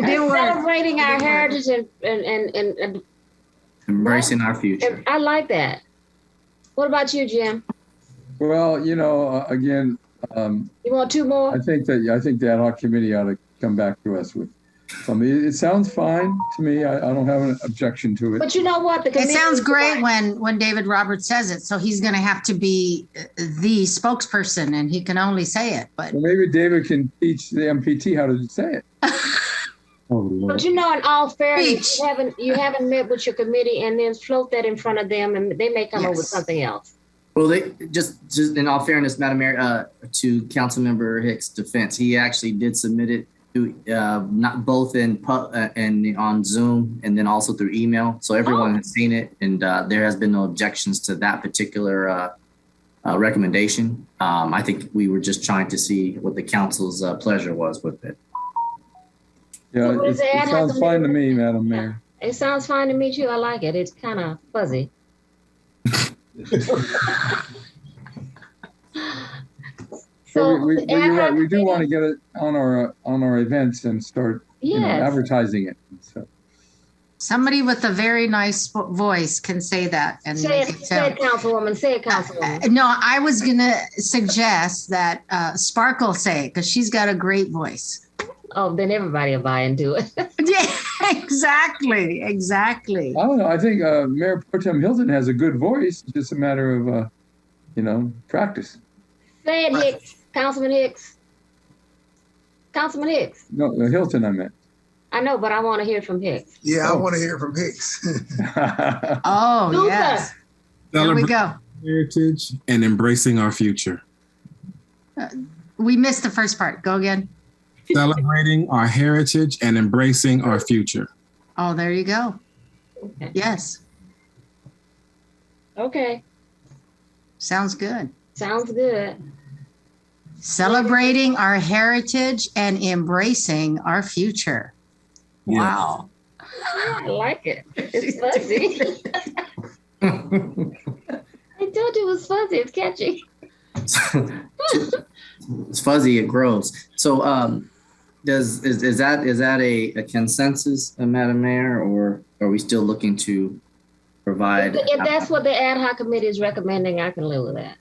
They were- celebrating our they were- heritage and, and, and, and, and Embracing our future. I like that. What about you, Jim? Well, you know, uh, again, um, You want two more? I think that, I think the ad hoc committee ought to come back to us with something. It- It sounds fine to me. I, I don't have an objection to it. But you know what? The It committee's sounds great right. when, when David Roberts says it, so he's gonna have to be uh, the spokesperson and he can only say it, but Well, maybe David can teach the MPT how to say it. Oh, Lord. But you know, in all fairness, Preach. you haven't you haven't met with your committee and then float that in front of them and they may come up with Yes. something else. Well, they just just in all fairness, Madam Mayor, uh, to Councilmember Hicks' defense, he actually did submit it to uh, not both in pu- uh, and on Zoom and then also through email. So everyone has seen it, and uh, there has been no objections to that particular uh, uh, recommendation. Um, I think we were just trying to see what the council's uh, pleasure was with it. Yeah, What it is the ad it hoc sounds fine to me, committee? Madam Mayor. It sounds fine to me too. I like it. It's kind of fuzzy. So we, we, the but you're ad right, hoc we do want to committee- get it on our, uh, on our events and start, you know, Yes. advertising it. So, somebody with a very nice vo- voice can say that and Say make it, it say it, sound. Councilwoman. Say it, Uh, Councilwoman. No, I was gonna suggest that uh, Sparkle say it, because she's got a great voice. Oh, then everybody will buy into it. Yeah, exactly, exactly. I don't know, I think, uh, Mayor Pro Tem Hilton has a good voice. It's just a matter of, uh, you know, practice. Say it, Hicks. Councilman Hicks. Councilman Hicks. No, Hilton, I meant. I know, but I want to hear from Hicks. Yeah, I Oh. want to hear from Hicks. Oh, Super. yes, there we Celebrating go. heritage and embracing our future. We missed the first part. Go again. Celebrating our heritage and embracing our future. Oh, there you go. Okay. Yes, Okay. sounds good. Sounds good. Celebrating our heritage and embracing our future. Wow. I like it. It's fuzzy. I told you it was fuzzy. It's catchy. it's fuzzy. It grows. So, um, does is, is that is that a, a consensus, uh, Madam Mayor, or are we still looking to provide? If that's what the ad hoc committee is recommending, I can live with that.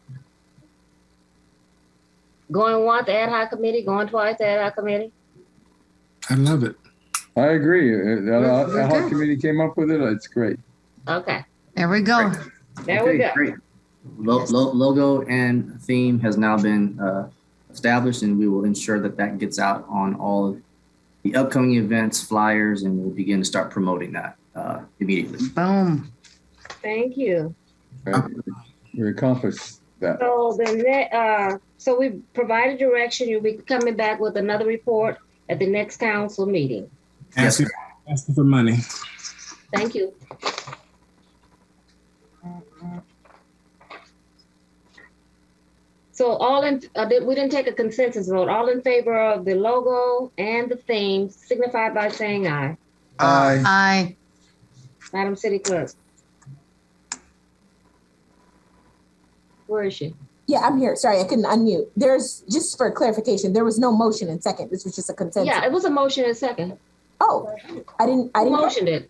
Going once, ad hoc committee, going twice, ad hoc committee. I love it. I agree. Uh, That Yes, uh, we ad hoc do. committee came up with it. uh, It's great. Okay, There we go. there we Okay, go. Great. Lo- lo- logo and theme has now been uh, established, and we will ensure that that gets out on all of the upcoming events, flyers, and we'll begin to start promoting that uh, immediately. Boom. Thank you. Right? Uh, We accomplished that. So the ne uh, so we provided direction. You'll be coming back with another report at the next council meeting. Yes, Asking, asking for money. Thank you. So all in, uh, did- we didn't take a consensus vote. All in favor of the logo and the theme signify by saying aye. Aye. I Madam City Clerk. Where is she? Yeah, I'm here. Sorry, I couldn't unmute. There's, just for clarification, there was no motion and second. This was just a consensus. Yeah, it was a motion and second. Oh, I didn't, I Who didn't. motioned it?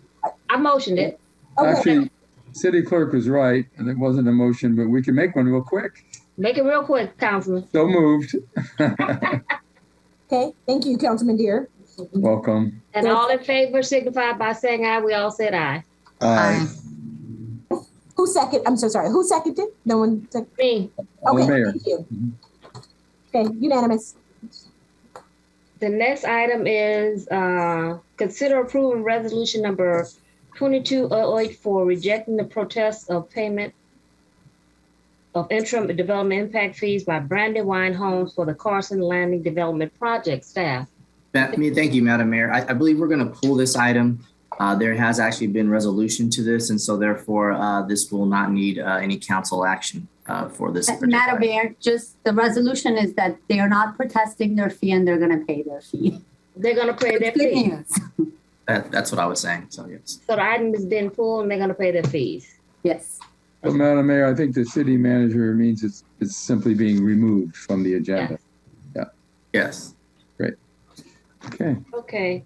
I motioned it. Okay, Actually, city clerk was right, and it wasn't a motion, but we can make one real quick. Make it real quick, Councilman. So moved. okay. Thank you, Councilman Deere. Welcome. And all in favor signify by saying aye. We all said aye. I Who second, I'm so sorry, who seconded? No one, sec- Me, okay, Mayor. Mm-hmm. thank you. Okay, unanimous. The next item is, uh, consider approving resolution number twenty-two oh eight for rejecting the protest of payment of interim development impact fees by Brandywine Homes for the Carson Landing Development Project staff. That- I mean, thank you, Madam Mayor. I, I believe we're going to pull this item. Uh, there has actually been resolution to this, and so therefore uh, this will not need uh, any council action uh, for this. particular Madam Mayor, just the resolution is that they are not protesting their fee and they're gonna pay their fee. They're gonna pay their It's good fees. news. That, that's what I was saying. So yes. So the item is being pulled and they're gonna pay their fees. Yes. So, Madam Mayor, I think the city manager means it's, it's simply being removed from the agenda. Yes. Okay. Okay.